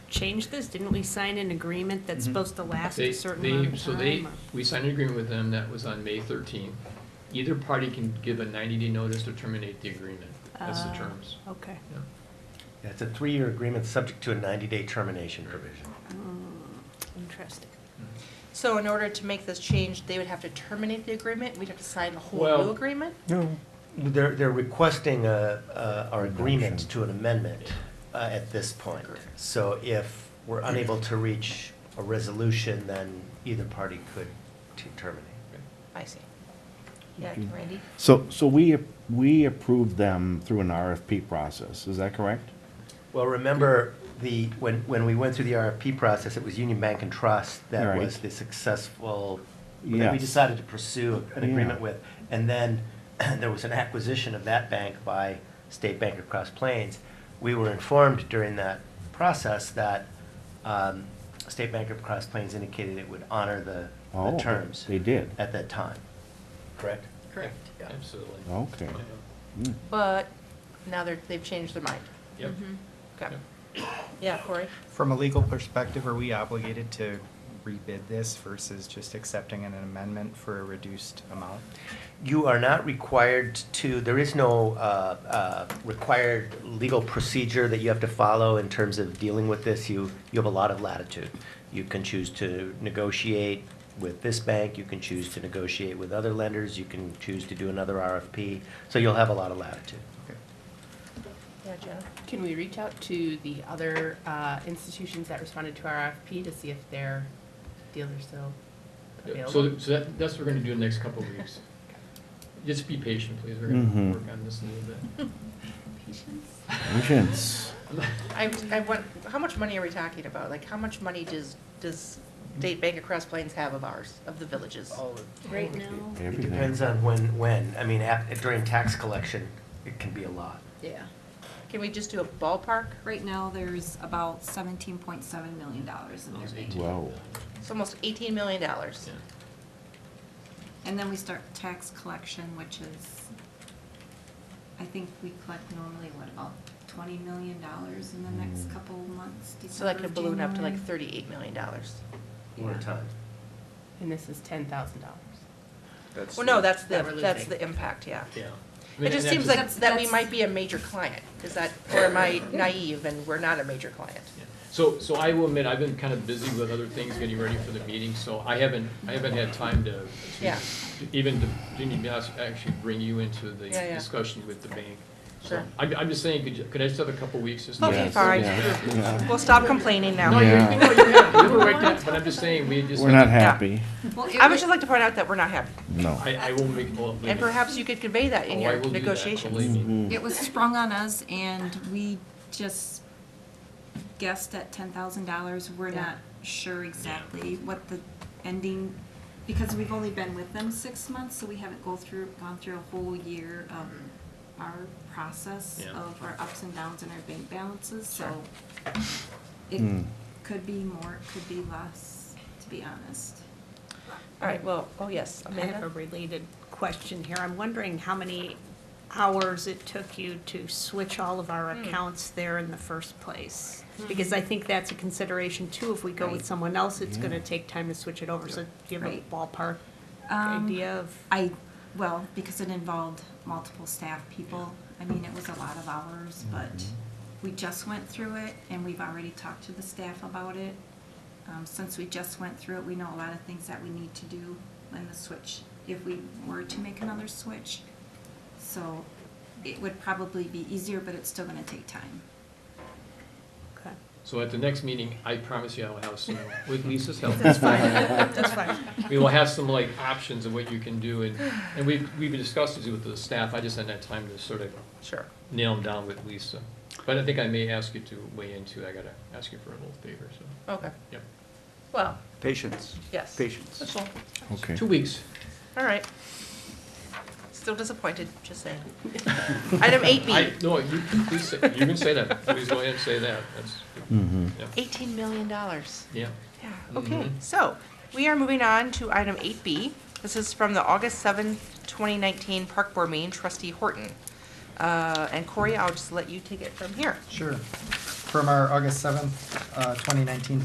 change this? Didn't we sign an agreement that's Mhm. supposed to last Mm-hmm. They- a certain they- amount of So they, time? or- we signed an agreement with them that was on May thirteenth. Either party can give a ninety-day notice to terminate the agreement. That's the Uh, terms. Okay. Yeah. Yeah, It's a three-year agreement, subject to a 90-day termination provision. Mm, Interesting. Mm-hmm. So in order to make this change, they would have to terminate the agreement, we'd have to sign the whole Well- new agreement? No. They're, they're requesting a, a- our agreement to an amendment uh, at this point. So if we're unable to reach a resolution, then either party could t- terminate. I see. Yeah, Randy? So, so we, we approved them through an RFP process, is that correct? Well, remember, the, when, when we went through the RFP process, it was Union Bank and Trust that Right. was the successful, that we Yes. decided to pursue an agreement Yeah. with. And then there was an acquisition of that bank by State Bank of Cross Plains. We were informed during that process that um, State Bank of Cross Plains indicated it would honor the, Oh, the terms They did, at that time, correct? Correct, Yeah. absolutely. okay. Yeah. Hmm. But now they're, they've changed their mind. Yep. Okay. Yeah, Corey? From a legal perspective, are we obligated to rebid this versus just accepting an amendment for a reduced amount? You are not required to, there is no uh, uh, required legal procedure that you have to follow in terms of dealing with this. You, you have a lot of latitude. You can choose to negotiate with this bank, you can choose to negotiate with other lenders, you can choose to do another RFP. So you'll have a lot of latitude. Okay. Yeah, Jenna? Can we reach out to the other uh, institutions that responded to our RFP to see if their deals are still Yeah, available? So, so that, that's what we're gonna do in the next couple of weeks. Just be patient, please. We're gonna Mhm. work on this a little bit. Patience. I, I want, how much money are we talking about? Like, how much money does, does State Bank of Cross Plains have of ours, of the villages? Right now? It Everything. depends on when, when. I mean, ap- during tax collection, it can be a lot. Yeah. Can we just do a ballpark? Right now, there's about seventeen point seven million dollars in their Almost bank. 18. Whoa. It's almost eighteen million dollars. Yeah. And then we start tax collection, which is, I think we collect normally, what, about twenty million dollars in the next Mm. couple months, So that December, could balloon up to like January. thirty-eight million dollars. One at a time. And this is ten thousand dollars. Well, no, that's That the, we're that's losing. the impact, yeah. Yeah. I mean, It just and seems that's like That's- that we that's- might be a major client. Is that, or am I naive and we're not a major client? Yeah. So, so I will admit, I've been kind of busy with other things, getting ready for the meeting, so I haven't, I haven't had time to, Yeah. even to, Jimmy, be honest, actually bring you into the Yeah, yeah. discussion with the bank. So, Sure. I'm, I'm just saying, could, you- could I just have a couple weeks just? to- Okay, Yes, fine. yeah, yeah. We'll stop complaining now. No, you're, Yeah. no, you're happy. You were right there, but I'm just saying, we just. We're not happy, Well, it I would just would- like to point out that we're not happy. no. I, I will make. well, And perhaps you could convey that in Oh, I your will do that, negotiations. believe Mm-hmm. me. It was sprung on us and we just guessed at ten thousand dollars. We're Yeah. not sure exactly what the ending, because we've only been with them six months, so we haven't go through, gone through a whole year of our process Yeah. of our ups and downs and our bank balances, so it Mm. could be more, it could be less, to be honest. All right, well, oh, yes, I have a Amanda? related question here. I'm wondering how many hours it took you to switch all of our Hmm. accounts there in the first place? Because I think that's a consideration too. If we go with Right. someone else, it's Yeah. gonna take time to switch it over. So do you have a Right. ballpark Um, idea of? I, well, because it involved multiple staff people, I mean, it was a lot of hours, but we just went through it, and we've already talked to the staff about it. Um, since we just went through it, we know a lot of things that we need to do in the switch, if we were to make another switch. So it would probably be easier, but it's still gonna take time. Okay. So at the next meeting, I promise you I will have some, with Lisa's help. That's fine. we will have some like options of what you can do, and, and we've, we've discussed this with the staff, I just hadn't had time to sort of Sure. nail them down with Lisa. But I think I may ask you to weigh in too, I gotta ask you for a little favor, so, Okay, yep. well, Patience, yes. patience. That's all. Okay. Two weeks. All right. Still disappointed, just saying. Item eight B, I, no, you, please, say- you can say that, please go ahead and say that, that's, Mm-hmm. eighteen million dollars. yeah. Yeah, okay, Mhm. so we are moving on to item eight B. This is from the August seventh, twenty nineteen Park Board meeting, trustee Horton. Uh, and Corey, I'll just let you take it from here. Sure. From our August 7th, uh, 2019